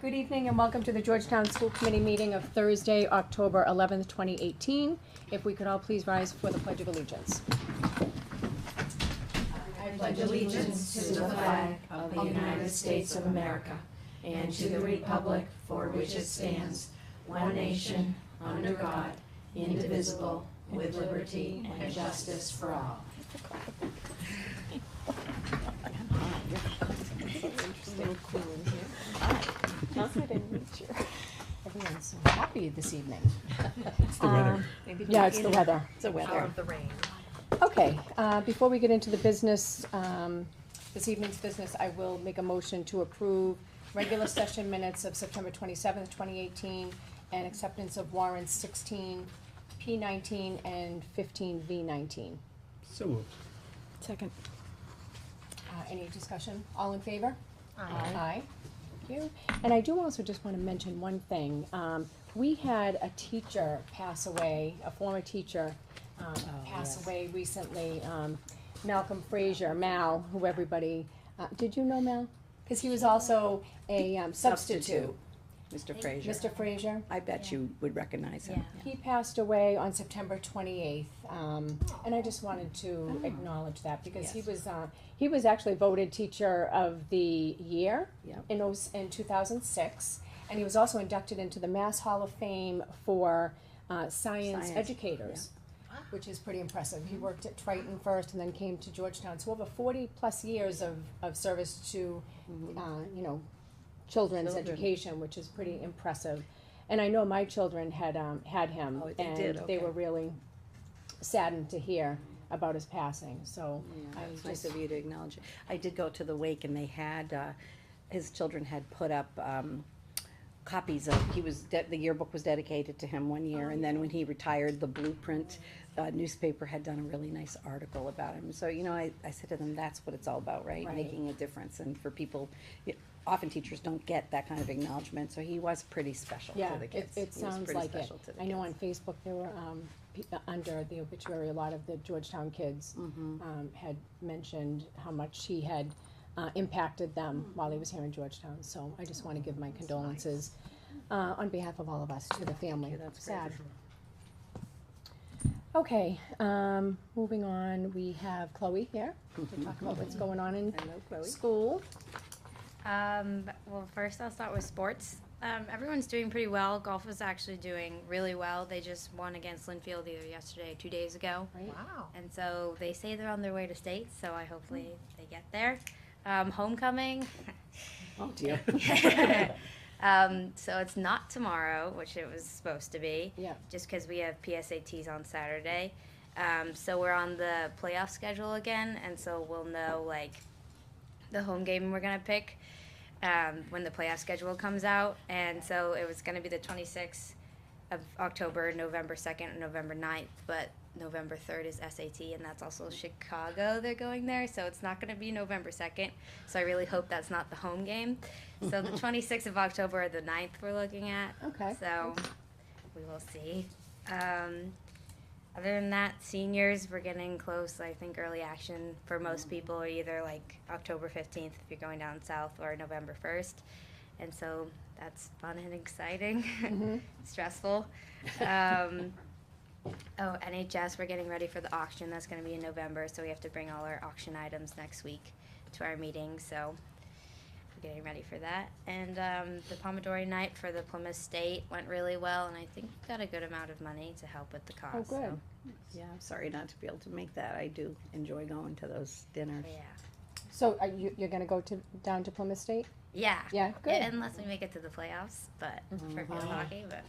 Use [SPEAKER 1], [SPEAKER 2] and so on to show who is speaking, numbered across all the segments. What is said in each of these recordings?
[SPEAKER 1] Good evening and welcome to the Georgetown School Committee meeting of Thursday, October 11th, 2018. If we could all please rise for the Pledge of Allegiance.
[SPEAKER 2] I pledge allegiance to the flag of the United States of America and to the republic for which it stands, one nation, under God, indivisible, with liberty and justice for all.
[SPEAKER 1] Everyone's so happy this evening.
[SPEAKER 3] It's the weather.
[SPEAKER 1] Yeah, it's the weather. It's the
[SPEAKER 4] Out of the rain.
[SPEAKER 1] Okay, uh, before we get into the business, um, this evening's business, I will make a motion to approve regular session minutes of September twenty-seventh, twenty eighteen, and acceptance of warrants sixteen P nineteen and fifteen V nineteen.
[SPEAKER 3] So moved.
[SPEAKER 5] Second.
[SPEAKER 1] Uh, any discussion? All in favor?
[SPEAKER 4] Aye.
[SPEAKER 1] Aye. Thank you. And I do also just wanna mention one thing. Um, we had a teacher pass away, a former teacher, um, pass away recently. Um, Malcolm Frazier, Mal, who everybody, uh, did you know Mal? Cause he was also a um, substitute.
[SPEAKER 5] Mr. Frazier.
[SPEAKER 1] Mr. Frazier.
[SPEAKER 5] I bet you would recognize him.
[SPEAKER 1] He passed away on September twenty-eighth, um, and I just wanted to acknowledge that because he
[SPEAKER 5] Oh. Yes.
[SPEAKER 1] was, uh, he was actually voted teacher of the year
[SPEAKER 5] Yep.
[SPEAKER 1] in those, in two thousand six. And he was also inducted into the Mass Hall of Fame for, uh, science
[SPEAKER 5] Science,
[SPEAKER 1] educators,
[SPEAKER 4] yeah. Wow.
[SPEAKER 1] which is pretty impressive. He worked at Triton first and then came to Georgetown, so over forty-plus years of, of service to, uh, you know, children's
[SPEAKER 5] Mm-hmm. Children.
[SPEAKER 1] education, which is pretty impressive. And I know my children had, um, had him,
[SPEAKER 5] Oh, they
[SPEAKER 1] and
[SPEAKER 5] did,
[SPEAKER 1] they
[SPEAKER 5] okay.
[SPEAKER 1] were really saddened to hear about his passing, so
[SPEAKER 5] Yeah,
[SPEAKER 1] I
[SPEAKER 5] It's nice
[SPEAKER 1] just,
[SPEAKER 5] of you to acknowledge it. I did go to the wake and they had, uh, his children had put up, um, copies of, he was, de- the yearbook was dedicated to him one
[SPEAKER 1] Oh,
[SPEAKER 5] year. And then when he retired, the Blueprint uh, newspaper had done a really nice article about him. So, you know, I, I said to them, that's what it's all about, right?
[SPEAKER 1] Right.
[SPEAKER 5] Making a difference. And for people, y- often teachers don't get that kind of acknowledgement. So he was pretty special
[SPEAKER 1] yeah,
[SPEAKER 5] to the
[SPEAKER 1] it,
[SPEAKER 5] kids.
[SPEAKER 1] it
[SPEAKER 5] He was
[SPEAKER 1] sounds
[SPEAKER 5] pretty
[SPEAKER 1] like it.
[SPEAKER 5] special to the
[SPEAKER 1] I know
[SPEAKER 5] kids.
[SPEAKER 1] on Facebook, there were, um, pe- uh, under the obituary, a lot of the Georgetown kids,
[SPEAKER 5] Mm-hmm.
[SPEAKER 1] um, had mentioned how much he had, uh, impacted
[SPEAKER 5] Mm.
[SPEAKER 1] them while he was here in Georgetown, so I just wanna give my condolences, uh, on behalf of all of us to the family.
[SPEAKER 5] Yeah, that's great.
[SPEAKER 1] Sad. Okay, um, moving on, we have Chloe here to talk about what's going on in
[SPEAKER 5] Hello, Mm-hmm. Chloe.
[SPEAKER 1] school.
[SPEAKER 6] Um, well, first I'll start with sports. Um, everyone's doing pretty well. Golf is actually doing really well. They just won against Linfield either yesterday or two days ago.
[SPEAKER 4] Wow.
[SPEAKER 6] And so they say they're on their way to state, so I hopefully they get there. Um, homecoming.
[SPEAKER 5] Oh, dear.
[SPEAKER 6] um, so it's not tomorrow, which it was supposed to be.
[SPEAKER 1] Yeah.
[SPEAKER 6] Just because we have PSATs on Saturday. Um, so we're on the playoff schedule again, and so we'll know like the home game we're gonna pick um, when the playoff schedule comes out. And so it was gonna be the 26th of October, November 2nd, and November 9th, but November 3rd is SAT, and that's also Chicago. They're going there, so it's not gonna be November 2nd. So I really hope that's not the home game. So the 26th of October, or the 9th, we're looking at.
[SPEAKER 1] Okay.
[SPEAKER 6] So we will see. Um, other than that, seniors, we're getting close. I think early action for most people are either like October 15th if you're going down south or November 1st. And so that's fun and exciting,
[SPEAKER 1] Mm-hmm.
[SPEAKER 6] stressful. Um, oh, NHS, we're getting ready for the auction. That's going to be in November. So we have to bring all our auction items next week to our meeting. So we're getting ready for that. And um, the Pomodori night for the Plymouth State went really well. And I think we got a good amount of money to help with the cause.
[SPEAKER 1] Oh,
[SPEAKER 6] so-
[SPEAKER 1] good.
[SPEAKER 5] Yeah, I'm sorry not to be able to make that. I do enjoy going to those dinners.
[SPEAKER 6] Yeah.
[SPEAKER 1] So are you, you're gonna go to, down to Plymouth State?
[SPEAKER 6] Yeah.
[SPEAKER 1] Yeah,
[SPEAKER 6] Yeah,
[SPEAKER 1] good.
[SPEAKER 6] unless we make it to the playoffs, but for field hockey, but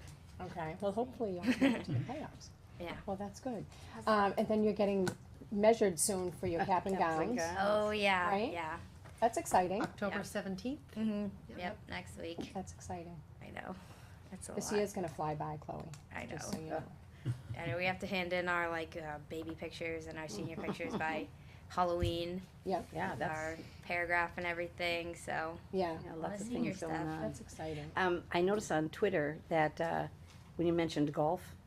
[SPEAKER 1] Okay, well, hopefully you'll make it to the playoffs.
[SPEAKER 6] Yeah.
[SPEAKER 1] Well, that's good. Um, and then you're getting measured soon for
[SPEAKER 6] Uh,
[SPEAKER 1] your cap and
[SPEAKER 5] Caps and
[SPEAKER 1] gowns.
[SPEAKER 5] gowns.
[SPEAKER 6] oh yeah,
[SPEAKER 1] Right?
[SPEAKER 6] yeah.
[SPEAKER 1] That's exciting.
[SPEAKER 4] October seventeenth?
[SPEAKER 6] hmm
[SPEAKER 4] Yep.
[SPEAKER 6] Yep. next week.
[SPEAKER 1] That's exciting.
[SPEAKER 6] I know. It's a
[SPEAKER 1] This
[SPEAKER 6] lot.
[SPEAKER 1] year's gonna fly by, Chloe.
[SPEAKER 6] I know.
[SPEAKER 1] Just so you know.
[SPEAKER 6] I know we have to hand in our like uh, baby pictures and our senior pictures by Halloween,
[SPEAKER 1] Yeah,
[SPEAKER 5] Yeah,
[SPEAKER 6] our
[SPEAKER 5] that's,
[SPEAKER 6] paragraph and everything. So
[SPEAKER 1] yeah,
[SPEAKER 5] yeah,
[SPEAKER 6] lot
[SPEAKER 5] lots
[SPEAKER 6] of
[SPEAKER 5] of
[SPEAKER 6] senior
[SPEAKER 5] things going
[SPEAKER 6] stuff.
[SPEAKER 5] on.
[SPEAKER 1] that's exciting.
[SPEAKER 5] Um, I noticed on Twitter that, uh, when you mentioned golf,